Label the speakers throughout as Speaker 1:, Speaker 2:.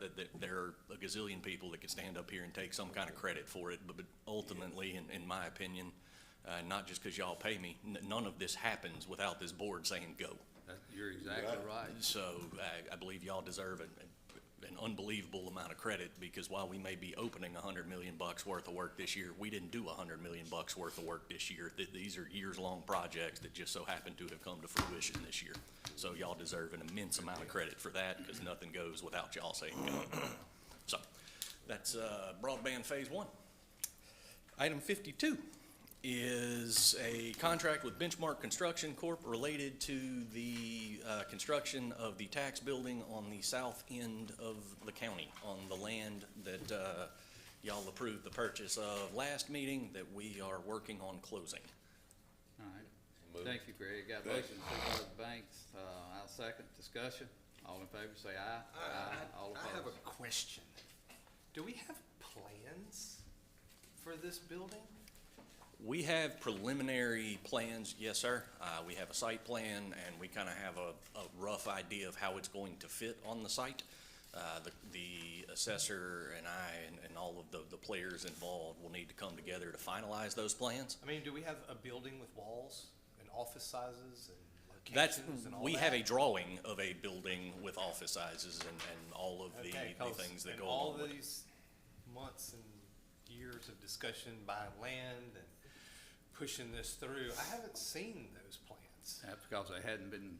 Speaker 1: that, that there are a gazillion people that could stand up here and take some kind of credit for it, but, but ultimately, in, in my opinion, uh, not just because y'all pay me, n- none of this happens without this board saying go.
Speaker 2: That- You're exactly right.
Speaker 1: So I, I believe y'all deserve an, an unbelievable amount of credit because while we may be opening a hundred million bucks worth of work this year, we didn't do a hundred million bucks worth of work this year. Th- these are years-long projects that just so happen to have come to fruition this year. So y'all deserve an immense amount of credit for that because nothing goes without y'all saying go. So that's, uh, broadband phase one. Item fifty-two is a contract with Benchmark Construction Corp. related to the uh, construction of the tax building on the south end of the county, on the land that uh, y'all approved the purchase of last meeting that we are working on closing.
Speaker 2: All right. Thank you, Greg. Got a motion, Supervisor Banks, uh, I'll second. Discussion. All in favor, say aye.
Speaker 1: Uh,
Speaker 2: Aye. All
Speaker 3: I have
Speaker 2: opposed.
Speaker 3: a question. Do we have plans for this building?
Speaker 1: We have preliminary plans, yes, sir. Uh, We have a site plan, and we kind of have a, a rough idea of how it's going to fit on the site. Uh, The the assessor and I and- and all of the, the players involved will need to come together to finalize those plans.
Speaker 3: I mean, do we have a building with walls and office sizes and
Speaker 1: That's,
Speaker 3: locations and all that?
Speaker 1: we have a drawing of a building with office sizes and, and all of the,
Speaker 3: Okay,
Speaker 1: the
Speaker 3: 'cause
Speaker 1: things that
Speaker 3: in
Speaker 1: go along with
Speaker 3: all
Speaker 1: it.
Speaker 3: these months and years of discussion buying land and pushing this through, I haven't seen those plans.
Speaker 2: That's because they hadn't been,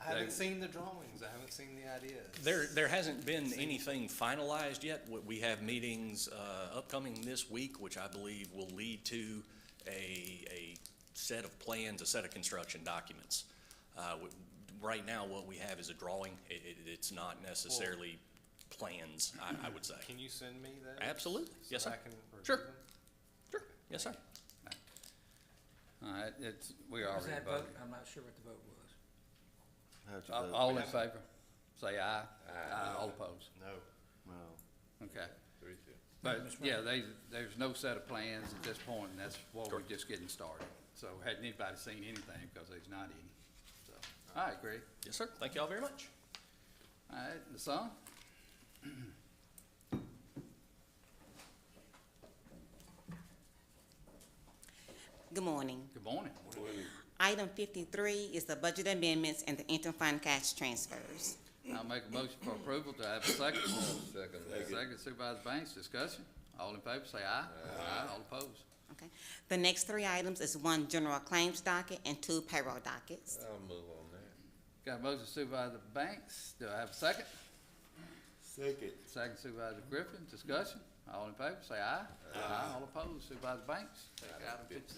Speaker 3: I haven't
Speaker 2: They-
Speaker 3: seen the drawings, I haven't seen the ideas.
Speaker 1: There, there hasn't been anything finalized yet. We- We have meetings uh, upcoming this week, which I believe will lead to a, a set of plans, a set of construction documents. Uh, w- Right now, what we have is a drawing. It, it, it's not necessarily plans, I, I would say.
Speaker 3: Can you send me those?
Speaker 1: Absolutely. Yes,
Speaker 3: So
Speaker 1: sir.
Speaker 3: I can review
Speaker 1: Sure.
Speaker 3: them?
Speaker 1: Sure. Yes, sir.
Speaker 2: all right, it's, we
Speaker 4: Was
Speaker 2: already
Speaker 4: that vote?
Speaker 2: voted.
Speaker 4: I'm not sure what the vote was.
Speaker 5: How'd you
Speaker 2: All-
Speaker 5: vote?
Speaker 2: All in favor, say aye. Aye. All opposed.
Speaker 3: No.
Speaker 5: Well,
Speaker 2: Okay. But, yeah, they, there's no set of plans at this point, and that's why we're just getting started. So hadn't anybody seen anything, because there's not any, so. All right, Greg.
Speaker 1: Yes, sir. Thank y'all very much.
Speaker 2: All right, the song?
Speaker 6: Good morning.
Speaker 2: Good morning.
Speaker 6: Item fifty-three is the budget amendments and the interfund cash transfers.
Speaker 2: I'll make a motion for approval. Do I have a second? Second. Second Supervisor Banks, discussion. All in favor, say aye. Aye. All opposed.
Speaker 6: Okay. The next three items is one general claims docket and two payroll dockets.
Speaker 7: I'll move on that.
Speaker 2: Got a motion Supervisor Banks. Do I have a second?
Speaker 5: second.
Speaker 2: Second Supervisor Griffin, discussion. All in favor, say aye. Aye. All opposed. Supervisor Banks. Take item fifty-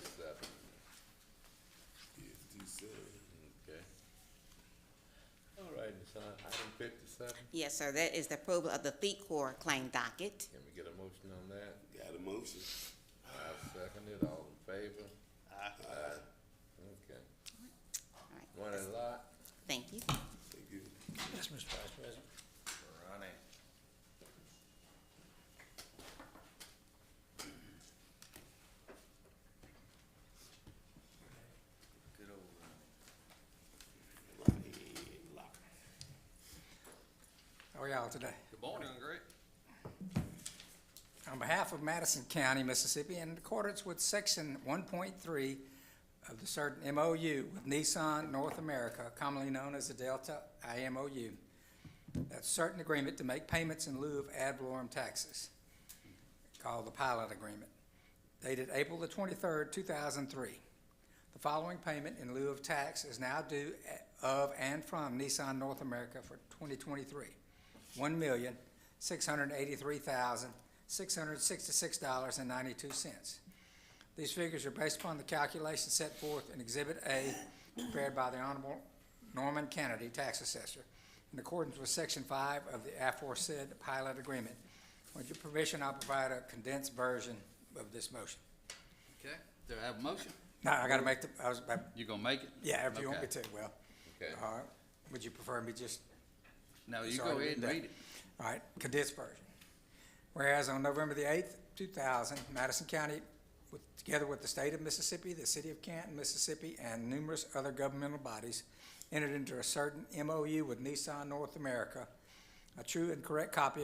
Speaker 7: Fifty-seven, okay. All right, it's on item fifty-seven.
Speaker 6: Yes, sir, that is the approval of the fleet corps claim docket.
Speaker 7: Can we get a motion on that?
Speaker 5: Got a motion.
Speaker 7: I second it, all in favor? Aye. Okay.
Speaker 6: All
Speaker 7: One
Speaker 6: right.
Speaker 7: a lot?
Speaker 6: Thank you.
Speaker 5: Thank you.
Speaker 4: Yes, Mr. Vice President. How are y'all today?
Speaker 2: Good morning.
Speaker 3: great.
Speaker 4: On behalf of Madison County, Mississippi, in accordance with section one point three of the certain MOU with Nissan North America, commonly known as the Delta IMOU, that certain agreement to make payments in lieu of ad valorem taxes, called the pilot agreement, dated April the twenty-third, two thousand three. The following payment in lieu of tax is now due a- of and from Nissan North America for twenty twenty-three. One million, six hundred eighty-three thousand, six hundred sixty-six dollars and ninety-two cents. These figures are based upon the calculations set forth in Exhibit A prepared by the Honorable Norman Kennedy, Tax Assessor, in accordance with Section five of the aforesaid pilot agreement. With your permission, I'll provide a condensed version of this motion.
Speaker 2: Okay, do I have a motion?
Speaker 4: Now, I gotta make the, I was, about-
Speaker 2: You gonna make it?
Speaker 4: yeah, if you want me
Speaker 2: Okay.
Speaker 4: to, well,
Speaker 7: Okay.
Speaker 4: all right. Would you prefer me just
Speaker 2: No, you
Speaker 4: It's
Speaker 2: go
Speaker 4: already
Speaker 2: ahead and
Speaker 4: been
Speaker 2: read it.
Speaker 4: All right, condensed version. Whereas on November the eighth, two thousand, Madison County, with, together with the state of Mississippi, the city of Canton, Mississippi, and numerous other governmental bodies, entered into a certain MOU with Nissan North America, a true and correct copy of